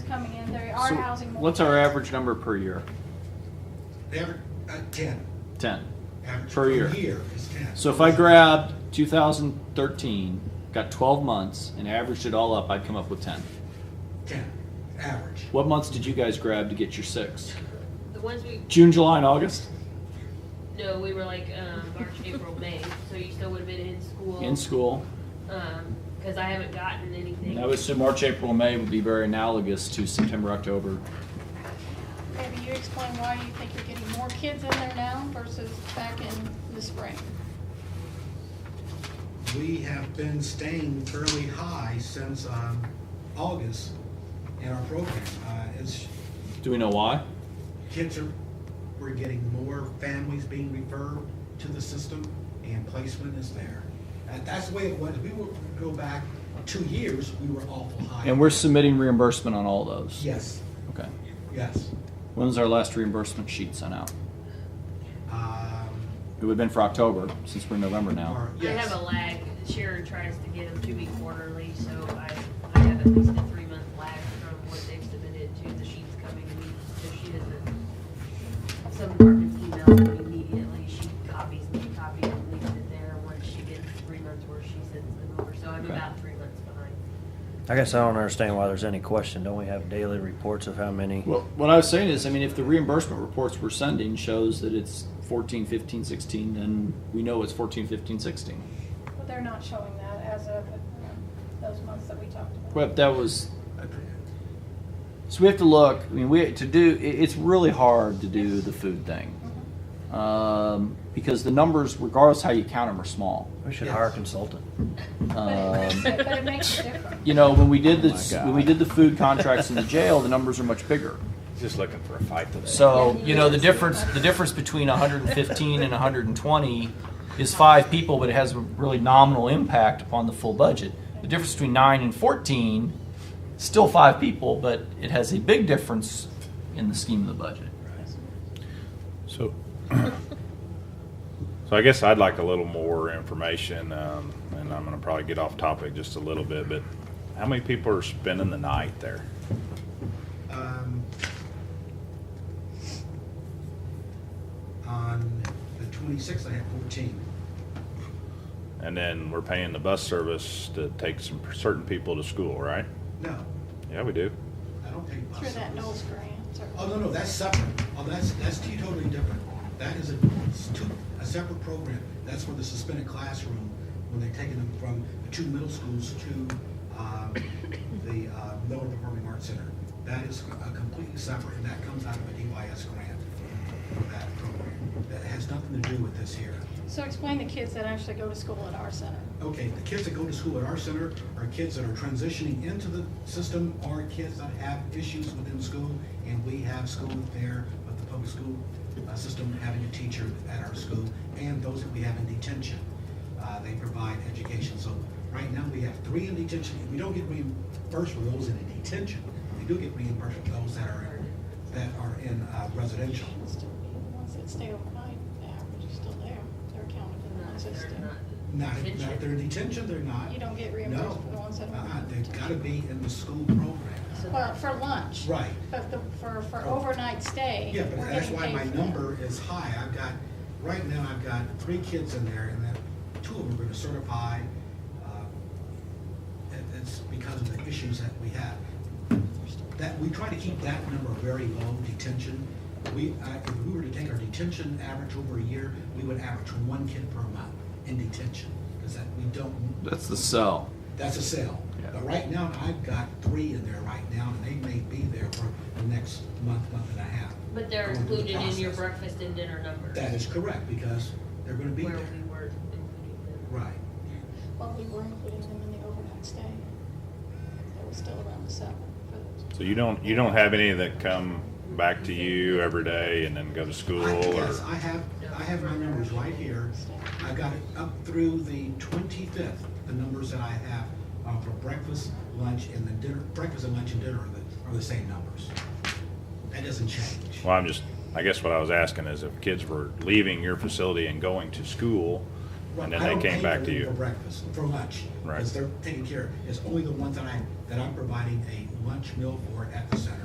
coming in, there are So housing. more What's our folks. average number per year? Average, uh, ten, Ten. average Per per year. year is ten. So if I grabbed two thousand thirteen, got twelve months, and averaged it all up, I'd come up with ten. Ten, average. What months did you guys grab to get your six? The ones we, June, July, and August? no, we were like, um, March, April, May, so you still would've been in school. In school? Um, cause I haven't gotten anything. And I would assume March, April, and May would be very analogous to September, October. Maybe you explain why you think you're getting more kids in there now versus back in the spring. We have been staying fairly high since, um, August in our program. Uh, it's, Do we know why? kids are, we're getting more families being referred to the system and placement is there. And that's the way it was. We were, go back two years, we were awful high. And we're submitting reimbursement on all those? Yes, Okay. yes. When's our last reimbursement sheet sent out? Um, It would've been for October, since we're in November now. or- I have yes. a lag, Sharon tries to get them to me quarterly, so I, I have at least a three month lag from what they've submitted to the sheets coming to me, so she doesn't. Some departments email them immediately, she copies me, copies and leaves it there, once she gets three months where she sends them over, so I'm Okay. about three months behind. I guess I don't understand why there's any question. Don't we have daily reports of how many? Well, what I was saying is, I mean, if the reimbursement reports we're sending shows that it's 14, 15, 16, then we know it's 14, 15, 16. But they're not showing that as of um, those months that we talked about. Well, that was. So we have to look. I mean, we to do. it- It's really hard to do the food thing um, because the numbers, regardless how you count them, are small. We should hire a consultant. But it- Um, But it makes a difference. you know, when we did this, Oh my God. when we did the food contracts in the jail, the numbers are much bigger. Just looking for a fight today. So you know the difference. The difference between 115 and 120 is five people, but it has a really nominal impact upon the full budget. The difference between nine and 14, still five people, but it has a big difference in the scheme of the budget. So, so I guess I'd like a little more information, um, and I'm gonna probably get off topic just a little bit, but how many people are spending the night there? Um, On the twenty-sixth, I had fourteen. And then we're paying the bus service to take some certain people to school, right? No, Yeah, we do. I don't pay bus Through that service. Knowles grant or. Oh, no, no, that's separate. Oh, that's, that's two totally different. That is a, it's two, a separate program. That's for the suspended classroom, when they're taking them from the two middle schools to, um, the, uh, Miller Performing Arts Center. That is a completely separate, and that comes out of a DYS grant for that program. That has nothing to do with this here. So explain the kids that actually go to school at our center. Okay, the kids that go to school at our center are kids that are transitioning into the system or kids that have issues within school, and we have school there with the public school uh, system having a teacher at our school, and those that we have in detention. Uh, They provide education, so right now we have three in detention. We don't get reimbursed for those in detention. We do get reimbursed for those that are, that are in uh, residential. Still, The ones that stay overnight, the average is still there. They're counted in the ones that They're not- stay. Not, not they're in detention, they're not. You don't get No, reimbursed for the ones that uh-uh, are. they've gotta be in the school program. so Well, that's- for lunch. Right. But the, for, for overnight stay. Yeah, but we're that's getting why paid my for that. number is high. I've got, right now, I've got three kids in there, and then two of them are gonna certify. uh, it- It's because of the issues that we have. That, we try to keep that number very low, detention. We, I- if we were to take our detention average over a year, we would average one kid per month in detention, because that, we don't That's the sell. that's a sale. Yeah. But right now, I've got three in there right now, and they may be there for the next month, month and a half. But they're going through the included in your process. breakfast and dinner numbers. That is correct, because they're gonna be Where there. we weren't including them. Right. Well, we were including them in the overnight stay. They were still around the seven for those. So you don't, you don't have any that come back to you every day and then go to school I- or? Yes, I have, I have my numbers right here. I've got it up through the twenty-fifth, the numbers that I have uh, for breakfast, lunch, and the dinner, breakfast and lunch and dinner are the, are the same numbers. That doesn't change. Well, I'm just, I guess what I was asking is if kids were leaving your facility and going to school, and then I they don't came pay back for to them For you. breakfast, for lunch. Right. Because they're taking care, it's only the ones that I, that I'm providing a lunch meal for at the center.